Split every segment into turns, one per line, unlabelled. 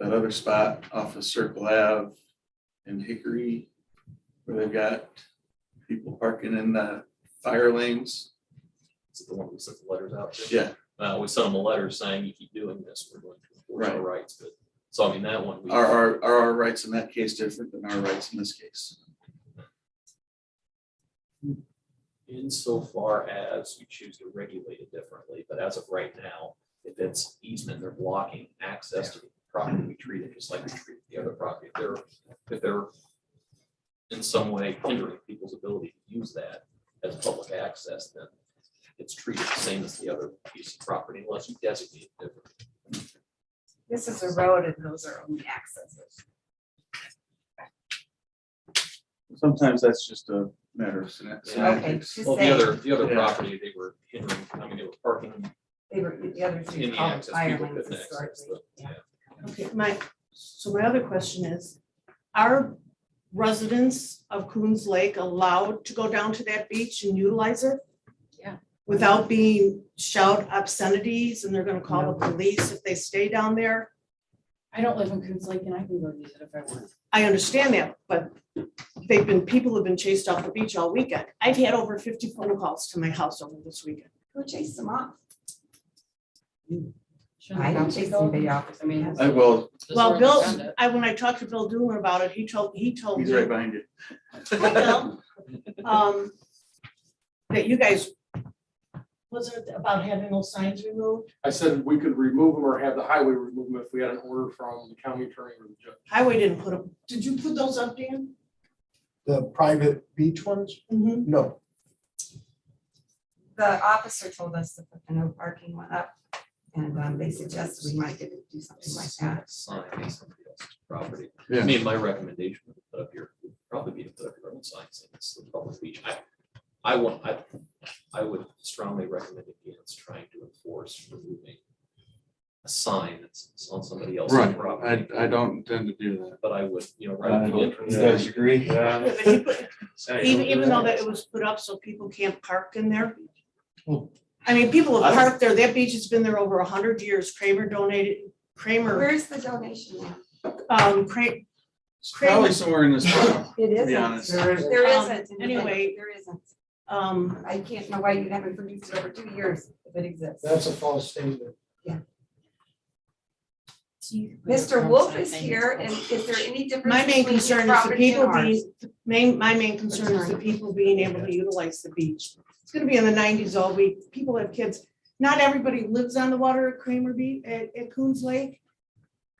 that other spot off of Circle Ave in Hickory, where they've got people parking in the fire lanes.
Is it the one we sent the letters out to?
Yeah,
Uh, we sent them a letter saying, you keep doing this, we're going to enforce our rights, but, so I mean, that one. we-
are, are, are our rights in that case different than our rights in this case?
Insofar as you choose to regulate it differently, but as of right now, if it's easement, they're blocking access to the property, we treat it just like we treat the other property. If they're, if they're in some way hindering people's ability to use that as public access, then it's treated the same as the other piece of property unless you designate it differently.
This is a road and those are only accesses.
Sometimes that's just a matter of seman-
Yeah.
Okay,
semantics.
she's
Well, the
saying,
other, the other
Yeah.
property, they were hindering, I mean, they were parking
they were, the other
in
three
the
called
access,
fire
people
lanes
couldn't access
historically.
the,
Yeah.
yeah.
Okay, my, so my other question is, are residents of Coons Lake allowed to go down to that beach and utilize it?
Yeah.
Without being shout obscenities and they're gonna call the police if they stay down there?
I don't live in Coons Lake and I can go use it if I want.
I understand that, but they've been, people have been chased off the beach all weekend. I've had over fifty phone calls to my house over this weekend.
Who chased them off?
Shouldn't
I
have
don't
to
chase
go.
anybody off.
I mean.
I, well,
just
Well,
where
Bill,
they found it.
I, when I talked to Bill Doomer about it, he told, he told me.
he's right behind you.
I know. Um, That you guys, was it about having those signs removed?
I said we could remove them or have the highway remove them if we had an order from the county attorney or the judge.
Highway didn't put them, did you put those up, Dan?
The private beach ones?
Mm-hmm.
No,
The officer told us to put the no parking one up and um, they suggested we might get to do something like that.
Sign on somebody else's property. I
Yeah.
mean, my recommendation would put up your, would probably be to put up your own sign saying it's the public beach. I, I want, I, I would strongly recommend against trying to enforce removing a sign that's on somebody else's property,
I don't intend to do that.
but I would, you know, right at the entrance.
agree?
Yeah, but he put, even, even though that it was put up so people can't park in there.
Well-
I mean, people
Hmm. I
have
don't-
parked there, that beach has been there over a hundred years, Kramer donated, Kramer,
Where's the donation now?
um, Kramer,
Probably somewhere in this. town.
It
isn't. honest. There
isn't. There
Um,
isn't.
anyway.
There isn't.
um,
I can't know why you haven't produced it over two years if it exists.
that's a false statement.
Mr. Wolf is here and is there any difference?
my main
between his
concern is the
property and
people
ours?
being, the main, my main concern is the people being able to utilize the beach. It's gonna be in the nineties all week. People have kids. Not everybody lives on the water at Kramer Beach, at, at Coons Lake.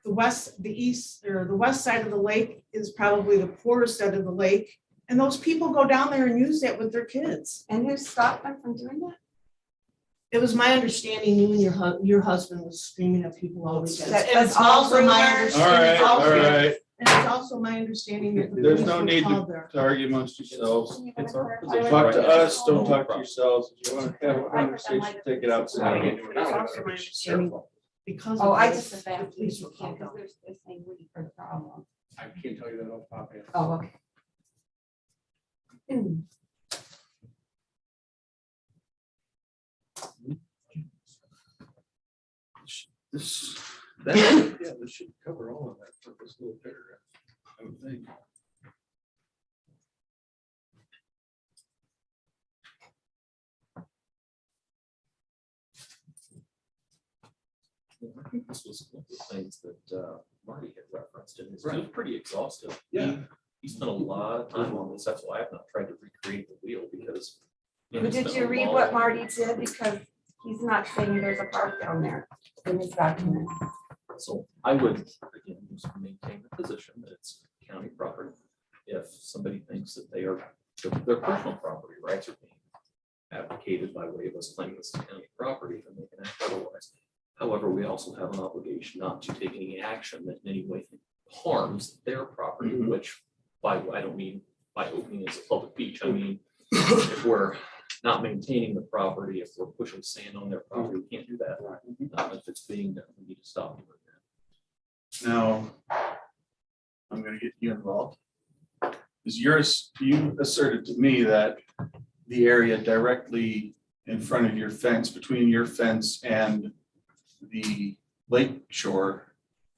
The west, the east, or the west side of the lake is probably the poorest end of the lake. And those people go down there and use that with their kids.
And who stopped them from doing that?
It was my understanding you and your hu- your husband was screaming at people all weekend.
That-
And it's
that's all
also my
rumors.
understanding-
Alright,
also-
alright,
And it's also my understanding that. the
There's
police
no
were
need to-
called there.
to argue amongst yourselves.
It's our position.
Talk to
right now.
us, don't talk to yourselves. If you want to have a conversation, take it outside.
It's also my understanding Because. of
Oh, I
this,
just, the
police were
can't,
called
because
out.
there's this thing we for the problem.
I can't tell you that off the top of my head.
Oh, okay. Hmm.
This, that, yeah, this should cover all of that for this little paragraph. I would think.
I think This was one of the things that uh, Marty had referenced and it was- it was
Right.
pretty exhaustive.
Yeah.
He spent a lot of time on this. That's why I've not tried to recreate the wheel because. you know,
But
it's
Did
been
you
a
read
long-
what Marty did? Because he's not saying there's a park down there in his document.
So I would, again, just maintain the position that it's county property. If somebody thinks that they are, their their personal property rights are being abdicated by way of us claiming this is county property, then they can act otherwise. However, we also have an obligation not to take any action that in any way harms their property, which by, I don't mean by opening it as a public beach, I mean, if we're not maintaining the property, if we're pushing sand on their property, we can't do that. Um, if it's being done, we need to stop doing that.
Now, I'm gonna get you involved. Is yours, you asserted to me that the area directly in front of your fence, between your fence and the lake shore